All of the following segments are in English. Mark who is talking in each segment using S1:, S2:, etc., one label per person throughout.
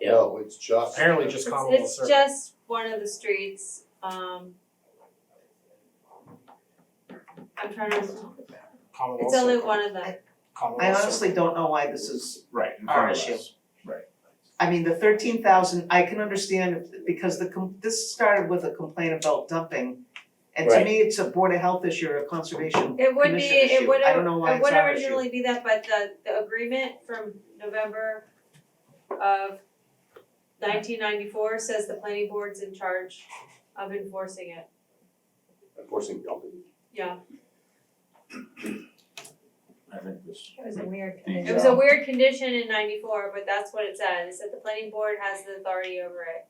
S1: Yeah,
S2: No, it's just.
S3: Apparently just
S4: It's-
S3: Commonwealth
S4: It's
S3: Circle.
S4: just one of the streets, um. I'm trying to,
S3: Commonwealth
S4: it's only
S3: Circle.
S4: one of them,
S3: Commonwealth
S5: I
S3: Circle.
S5: honestly don't know why this is,
S6: Right, in
S5: Our
S6: front of us.
S5: issue. I mean, the thirteen thousand, I can understand because the com- this started with a complaint about dumping. And to
S1: Right.
S5: me, it's a board of health issue or a conservation
S4: it would be,
S5: commission
S4: it
S5: issue,
S4: would
S5: I
S4: have,
S5: don't know why
S4: it
S5: it's
S4: would
S5: our issue.
S4: originally be that, but the the agreement from November of nineteen ninety-four says the planning board's in charge of enforcing it,
S2: Enforcing dumping.
S4: yeah.
S6: I think this,
S7: It was a weird
S6: The, uh,
S7: condition.
S4: It was a weird condition in ninety-four, but that's what it said, it said the planning board has the authority over it.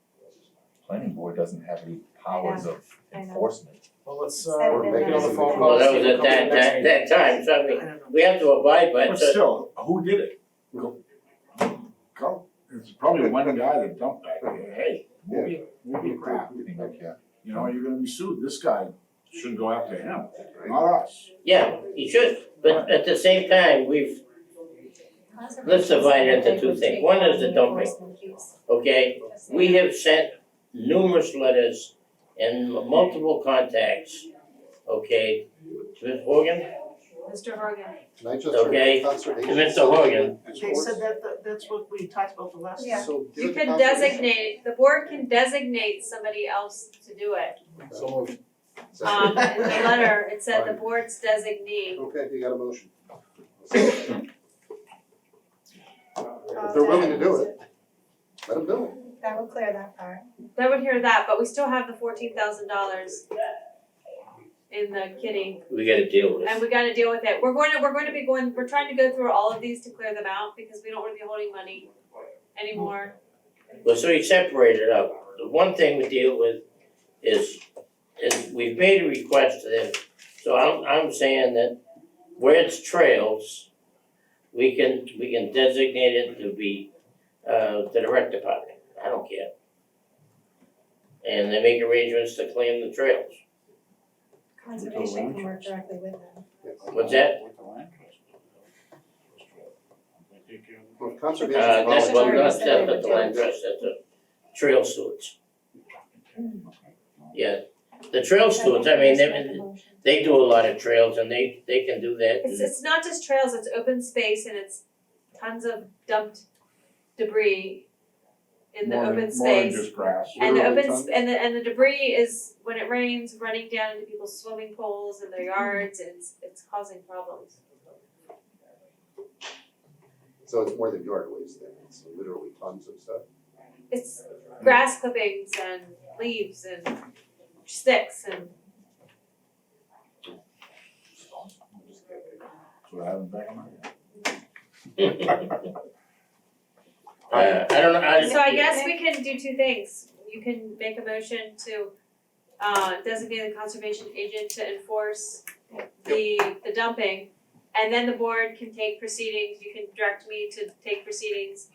S8: planning board doesn't have any powers of
S7: I know.
S8: enforcement.
S3: Well, let's, uh,
S7: Seven
S3: we're making all the
S2: minutes.
S3: phone calls.
S1: well, that was
S3: see
S1: at
S3: what comes
S1: that
S3: in next
S1: that
S3: meeting.
S1: that time, so I
S5: I
S1: mean,
S5: don't know.
S1: we have to abide by it,
S6: but
S1: so
S6: still, who did it?
S2: No.
S6: Go, it's probably one guy that dumped that, hey, move your, move your crap,
S8: I think, yeah.
S6: you know, you're gonna be sued, this guy should go after him, not us.
S1: yeah, you should, but at the same time, we've, Let's divide it into two things. One is the dumping. okay, we have sent numerous letters and multiple contacts, okay, to Ms. Hogan,
S4: Mr. Horgan,
S2: Can I just?
S1: Okay.
S2: Conservation.
S1: to Mr. Hogan,
S5: They said that, that- that's what we talked about the last time.
S7: Yeah.
S2: So. give
S4: you
S2: it to
S4: can
S2: conservation.
S4: designate, the board can designate somebody else to do it.
S3: So moved.
S4: Um, in the letter, it said the
S2: Right.
S4: board's designee.
S2: Okay, you got a motion. If they're willing to do it, let them do it.
S7: That will clear that part.
S4: They would hear that, but we still have the fourteen thousand dollars in the kitty,
S1: we gotta deal with it.
S4: and we gotta deal with it. We're going to, we're going to be going, we're trying to go through all of these to clear them out, because we don't wanna be holding money anymore.
S1: Well, so we separated it out. The one thing we deal with is, is we've made a request to them. So I'm, I'm saying that where it's trails, we can, we can designate it to be, uh, to the rec department. I don't care. And they make arrangements to claim the trails.
S7: Conservation can work directly with them.
S1: What's that?
S6: With the land trust. They take care of the-
S2: Well, if conservation.
S1: Uh, that's what,
S7: Volunteers
S1: that's,
S7: that they
S1: that's what the
S7: would
S1: land trust, that's the trail stewards. Yeah, the trail stewards, I mean, they, they do a lot of trails and they, they can do that.
S4: It's, it's not just trails, it's open space and it's tons of dumped debris in the
S6: More than-
S4: open space.
S6: More than just grass.
S4: And the
S2: Literally
S4: open,
S2: tons.
S4: sp- and the, and the debris is, when it rains, running down into people's swimming pools and their yards, and it's, it's causing problems.
S2: So it's more than yard waste then, it's literally tons of stuff.
S4: It's grass clippings and leaves and sticks and,
S6: So I haven't back in my.
S1: Uh, I don't know, I.
S4: so I guess we can do two things. You can make a motion to, uh, designate the conservation agent to enforce the, the dumping. And then the board can take proceedings, you can direct me to take proceedings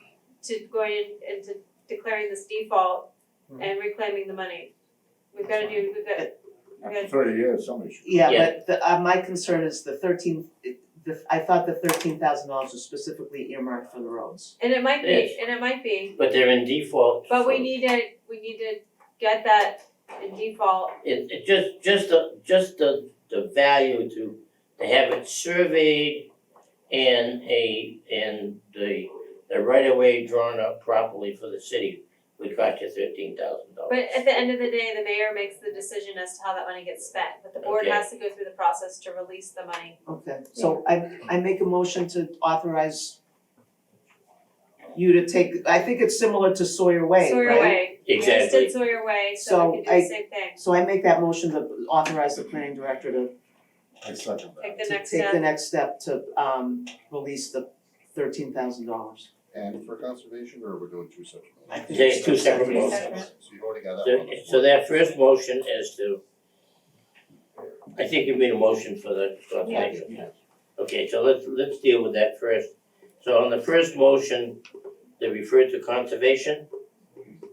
S4: to going in and to declaring this default and reclaiming the money. We've gotta do, we've got,
S6: After thirty years, somebody should.
S5: Yeah,
S1: Yeah.
S5: but the, uh, my concern is the thirteen, it- the, I thought the thirteen thousand dollars was specifically earmarked for the roads.
S4: and it might be,
S1: Yes.
S4: and it might be,
S1: But they're in default.
S4: but we
S1: for-
S4: need to, we need to get that in default.
S1: It, it just, just the, just the, the value to, to have it surveyed and a, and the, the right of way drawn up properly for the city would cost you thirteen thousand dollars.
S4: But at the end of the day, the mayor makes the decision as to how that money gets spent, but the board
S1: Okay.
S4: has to go through the process to release the money.
S5: Okay, so I, I make a motion to authorize you to take, I think it's similar to Sawyer Way, right?
S4: Sawyer Way, we just
S1: Exactly.
S4: did Sawyer Way, so we
S5: So
S4: can do the
S5: I-
S4: same thing,
S5: So I make that motion to authorize the planning director to
S6: I second that.
S4: take the
S5: to
S4: next
S5: take the
S4: step,
S5: next step to um release the thirteen thousand dollars.
S2: And for conservation, or we're doing two separate?
S5: I think
S1: There's two separate
S7: motions.
S2: So you've already got that
S1: So,
S2: one.
S1: so that first motion is to, I think you made a motion for the, for the
S7: Yeah.
S1: thing. Okay, so let's, let's deal with that first. So on the first motion, they refer to conservation,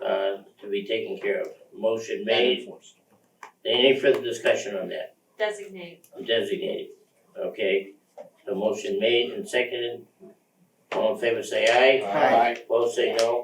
S1: uh, to be taken care of. Motion made. Any further discussion on that?
S4: designate.
S1: Designated, okay? The motion made and seconded. All in favor say aye.
S5: Aye.
S1: Opposed say no.